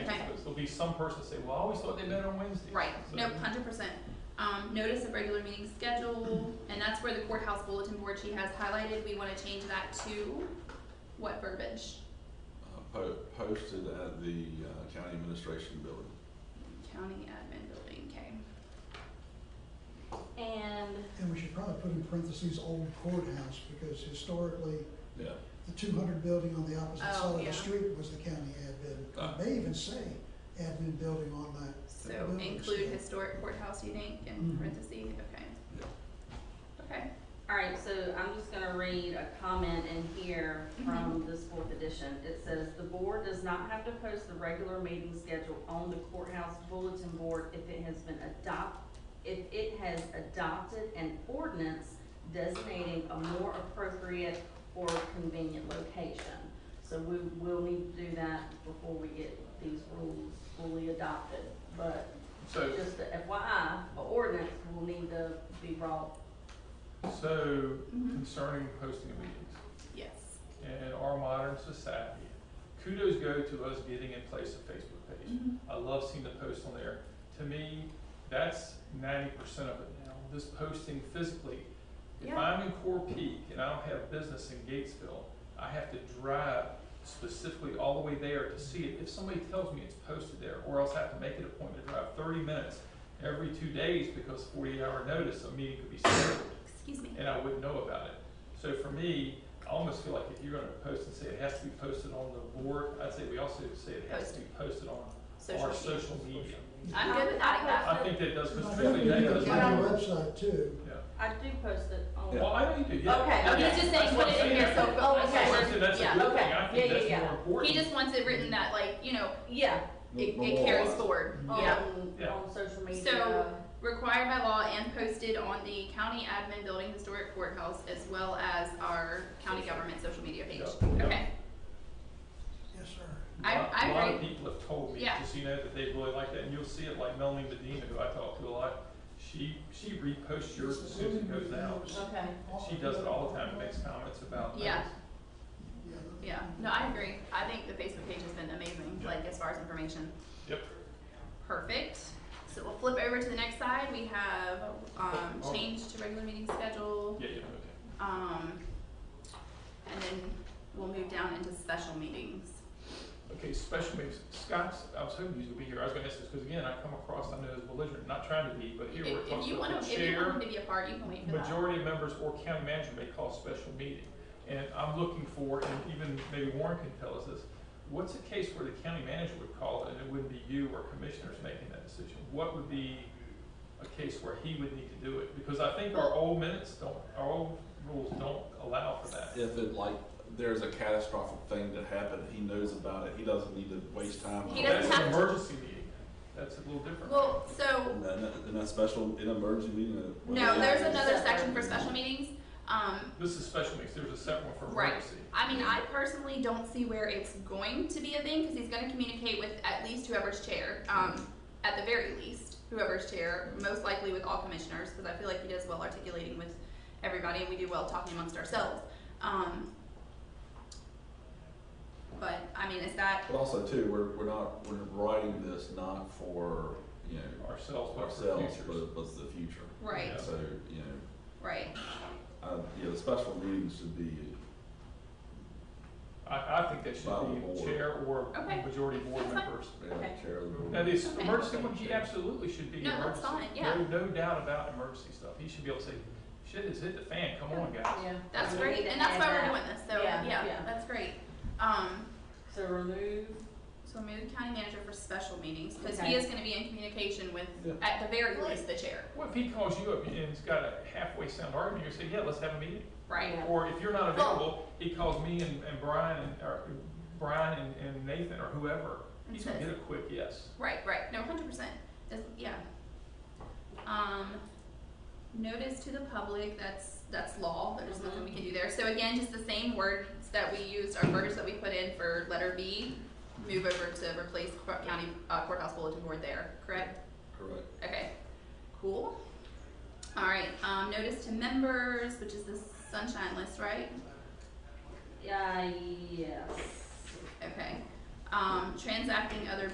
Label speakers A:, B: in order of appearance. A: be some person say, well, I always thought they met on Wednesday.
B: Right,
A: So-
B: no, hundred percent. Um, notice of regular meeting schedule, and that's where the courthouse bulletin board she has highlighted, we wanna change that to what verbiage?
C: uh, po- posted at the uh, county administration building.
B: County admin building, okay.
D: And
E: And we should probably put in parentheses old courthouse, because historically,
C: Yeah.
E: the two hundred building on the opposite
B: Oh,
E: side of
B: yeah.
E: the street was the county
C: Ah.
E: admin. They even say admin building on that.
B: So
E: Yeah.
B: include historic courthouse, you think, in
E: Mhm.
B: parentheses, okay.
C: Yeah.
B: Okay,
D: Alright, so I'm just gonna read a comment in here from this fourth edition. It says, "The board does not have to post the regular meeting schedule on the courthouse bulletin board if it has been adopt, if it has adopted an ordinance designating a more appropriate or convenient location." So we will need to do that before we get these rules fully adopted. But
A: So,
D: just the FYI, the ordinance will need to be brought
A: so
B: mhm,
A: concerning posting of meetings
B: yes.
A: in our modern society, kudos go to us getting in place a Facebook page.
B: Mhm.
A: I love seeing the posts on there. To me, that's ninety percent of it now, this posting physically. If
B: Yeah.
A: I'm in Core Peak and I don't have business in Gatesville, I have to drive specifically all the way there to see it. If somebody tells me it's posted there, or else I have to make an appointment to drive thirty minutes every two days because forty-eight hour notice, a meeting could be scheduled
B: Excuse me,
A: and I wouldn't know about it. So for me, I almost feel like if you're gonna post and say it has to be posted on the board, I'd say we also say it has to be posted on our
B: social media.
A: social media.
B: I'm good with adding that.
A: I think that does,
E: I
A: particularly
E: think you
A: that
E: need
A: does.
E: to
D: What
E: on
D: I'm-
E: the website too.
A: Yeah.
D: I do post it on.
A: Well, I know you do, yeah.
D: Okay, I'm
A: Yeah.
B: just saying
A: That's
B: put it in
A: I'm saying.
B: there so-
A: That's
B: oh,
A: what I'm
B: okay.
A: saying. That's a
D: Yeah,
A: good
D: okay.
A: thing. I think
D: Yeah,
A: that's
D: yeah,
A: more important.
B: He just wants it written that like, you know,
D: Yeah,
B: it,
C: No-
B: it
C: no
B: carries
C: laws.
B: forward,
E: Mhm.
D: Mm-hmm.
B: yeah.
D: on,
A: Yeah.
D: on social media.
B: So- required by law and posted on the county admin building historic courthouse as well as our county government social media page.
A: Yeah.
B: Okay,
E: Yes, sir.
B: I-
A: Lot-
B: I
A: A lot of
B: agree.
A: people have told me,
B: Yeah.
A: just so you know, that they really like that, and you'll see it, like Melanie Medina, who I talk to a lot, she, she reposts yours as soon as it goes out.
D: Okay.
A: She does it all the time, and makes comments about things.
B: Yeah.
E: Yeah.
B: yeah, no, I agree. I think the Facebook page has been amazing, like as far as information.
A: Yep.
B: Perfect. So we'll flip over to the next side. We have, um, change to regular meeting schedule.
A: Oh. Yeah, yeah, okay.
B: Um, and then we'll move down into special meetings.
A: Okay, special meetings, Scott's, I was hoping you would be here, I was gonna ask this, because again, I come across, I know as belligerent, not trying to be, but here
B: If,
A: we're
B: if
A: talking
B: you wanna,
A: about the
B: if you
A: chair.
B: want him to be a part, you can wait for that.
A: majority members or county manager may call a special meeting. And I'm looking for, and even maybe Warren can tell us this, what's a case where the county manager would call it and it wouldn't be you or commissioners making that decision? What would be a case where he would need to do it? Because I think our old minutes don't, our old rules don't allow for that.
C: If it like, there's a catastrophic thing that happened, he knows about it, he doesn't need to waste time.
B: He doesn't
A: That's
B: have
A: an
B: to-
A: emergency meeting, that's a little different.
B: Well, so
C: In that, in that special, in emergency meeting. uh,
B: No, there's another
D: Separate.
B: section for special meetings. Um,
A: This is special meetings, there's a separate one for
B: Right.
A: emergency.
B: I mean, I personally don't see where it's going to be a thing because he's going to communicate with at least whoever's chair, um, at the very least, whoever's chair, most likely with all commissioners because I feel like he does well articulating with everybody and we do well talking amongst ourselves. Um, but I mean, is that
C: But also too, we're, we're not, we're writing this not for, you know,
A: Ourselves, but for
C: ourselves,
A: futures.
C: but, but the future.
B: right?
A: Yeah.
C: So, you know,
B: Right.
C: uh, you know, the special meetings should be,
A: I, I think that
C: By the
A: should be
C: board.
A: chair or
B: Okay.
A: majority board
B: That's fine.
A: members.
C: yeah, uh, chair of the board.
A: Now, this
B: Okay.
A: emergency one, he absolutely should be
B: No, that's
A: emergency.
B: fine, yeah.
A: No, no doubt about emergency stuff. He should be able to say, shit has hit the fan, come on, guys.
D: Yeah.
B: That's
D: We need
B: great,
D: to
B: and that's
D: add
B: why we're
D: that.
B: doing this. So
D: Yeah,
B: yeah,
D: yeah.
B: that's great. Um,
D: So remove,
B: So move county manager for special meetings, because he
D: Okay.
B: is gonna be in communication with,
C: Yeah.
B: at the very least, the chair,
A: What if he calls you up and has got a halfway sound argument, you say, yeah, let's have a meeting?
B: right?
D: Yeah.
A: Or if you're not
B: Well-
A: available, he calls me and, and Brian, and- or Brian and- and Nathan or whoever.
B: And
A: He's gonna
B: says-
A: get a quick yes.
B: Right, right, no, hundred percent, yeah. Um, notice to the public, that's, that's law, there's nothing we can do there, so again, just the same words that we used, our words that we put in for letter B, move over to replace cour- county uh, courthouse bulletin board there, correct?
C: Correct.
B: Okay, cool. All right, um, notice to members, which is the sunshine list, right?
D: yeah, yes.
B: Okay. Um, transacting other